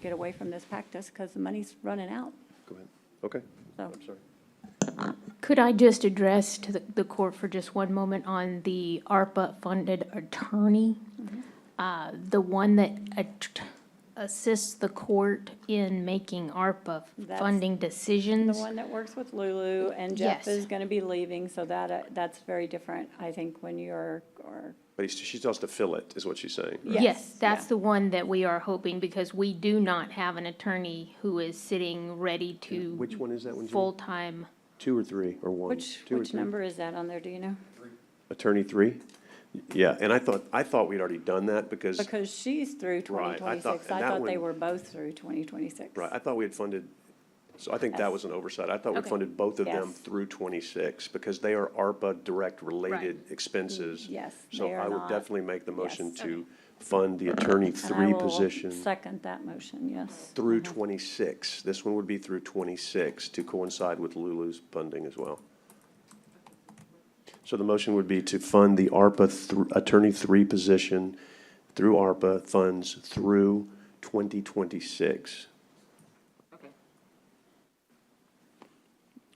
get away from this practice because the money's running out. Go ahead. Okay. So I'm sorry. Could I just address to the- the court for just one moment on the ARPA-funded attorney? Mm-hmm. Uh, The one that at- assists the court in making ARPA That's funding the decisions? one that works with Lulu and Jeff Yes. is going to be leaving, so that, uh, that's very different, I think, when you're, or, But he's- she tells to fill it, is what she's saying. right? yes. Yes, that's yeah. the one that we are hoping, because we do not have an attorney who is sitting ready to. Which one is that one, Judy? Full-time. Two or three, or one? Which, Two or which three? number is that on there, do you know? Attorney three? Yeah, and I thought, I thought we'd already done that because, Because she's through Right, I thought- 2026. and I that thought they one- were both through 2026. right, I thought we had funded, so I think that Yes. was an oversight. I thought we Okay. funded both of them Yes. through twenty-six because they are ARPA direct related expenses. Yes, So they are I would not. definitely make the motion Yes. to fund the attorney And I three will position. Second that motion, yes. Through 26. This one would be through 26 to coincide with Lulu's funding as well. So the motion would be to fund the ARPA thr- Attorney 3 position through ARPA funds through 2026.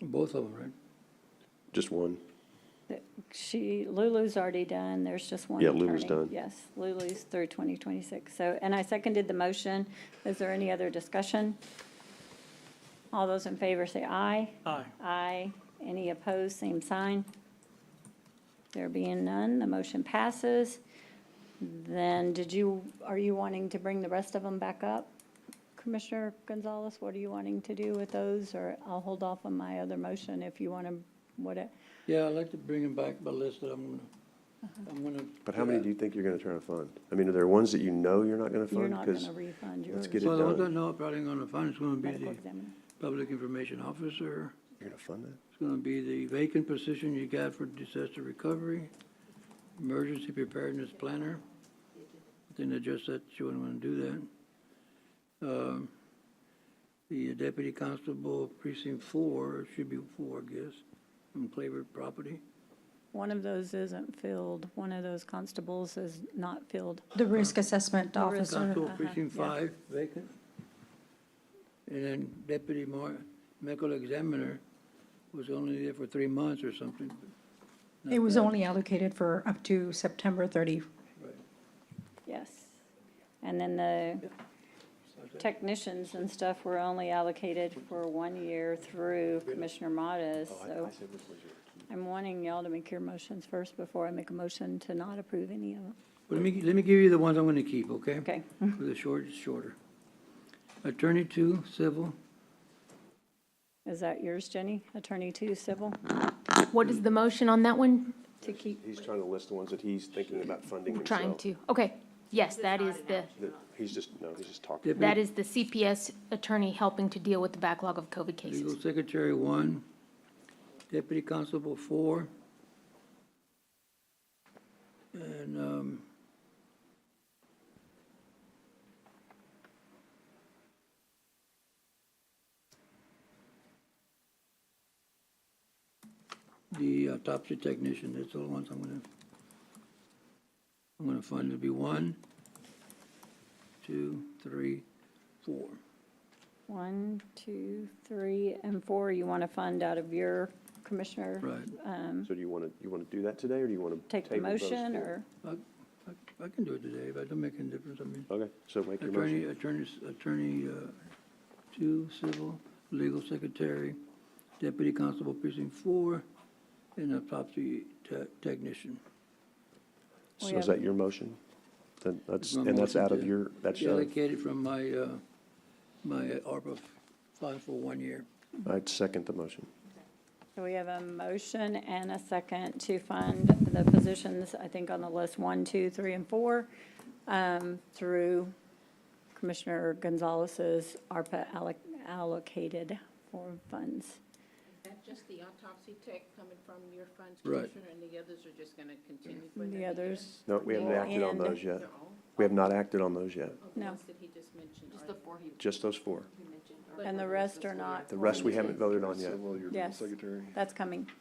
Both of them, right? Just one. She, Lulu's already done, there's just one Yeah, attorney. Lulu's done. Yes, Lulu's through 2026. So, and I seconded the motion. Is there any other discussion? All those in favor say aye. Aye. Aye. Any opposed, same sign. There being none, the motion passes. Then did you, are you wanting to bring the rest of them back up? Commissioner Gonzalez, what are you wanting to do with those? Or I'll hold off on my other motion if you want to, what, it- Yeah, I'd like to bring them back, but listen, I'm gonna, I'm gonna. But how many do you think you're going to try to fund? I mean, are there ones that you know you're not going to you're fund? not going 'Cause- to refund yours. let's get it Well, the ones I done? know I'm probably gonna find, it's gonna be Medical the examiner. public information officer, You're going to fund it? it's gonna be the vacant position you got for disaster recovery, emergency preparedness planner. I think that just that you wouldn't wanna do that. Um, The deputy constable precinct four, it should be four, I guess, on flavored property. One of those isn't filled, one of those constables is not filled. The risk uh, assessment officer. Constable precinct yeah. five vacant. And then deputy mar, medical examiner was only there for three months or something. It was only allocated for up to September 30. Yes. And then the technicians and stuff were only allocated for one year through Commissioner Modas, Oh, so I'm wanting y'all to make your motions first before I make a motion to not approve any of them. But let me, let me give you the ones I'm gonna keep, okay? Okay, For the short, it's shorter. Attorney two, civil, is that yours, Jenny? Attorney two, civil, What is the motion on that one? to keep, He's trying to list the ones that he's thinking about funding himself. Trying to, okay, yes, that is the, That- He's just, no, he's just talking. Yep. that is the CPS attorney helping to deal with the backlog of COVID legal cases. secretary one, deputy constable four. And, um, the uh, autopsy technician, that's all the ones I'm gonna, I'm gonna find to be one, two, three, four. one, two, three, and four, you want to fund out of your commissioner? Right. So do you want to, you want to do that today or do you want to? Take the motion, or, I, I- I can do it today, but it don't make any difference, I mean, Okay, so make your motion. attorney, attorney, attorney, uh, two, civil, legal secretary, deputy constable precinct four, and autopsy te- technician. We So is have- that your motion? Then that's, My and that's motion out of to- your, that's, uh, Allocated from my, uh, my ARPA fund for one year. I'd second the motion. so we have a motion and a second to fund the positions, I think on the list, one, two, three, and four, um, through Commissioner Gonzalez's ARPA alloc- allocated for funds. That's just the autopsy tech coming from your funds, Right. Commissioner, and the others are just gonna continue for another The year? others, No, we haven't Well, acted on and- those yet. They're all, We have not acted on those yet, of the No. ones that he just mentioned. Just the four he just those four. mentioned. and the rest are not. The rest we haven't voted on yet. Yes. Secretary, That's coming.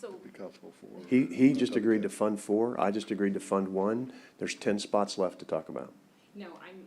So be comfortable for. He, he just agreed to fund four, I just agreed to fund one. There's ten spots left to talk about. No, I'm,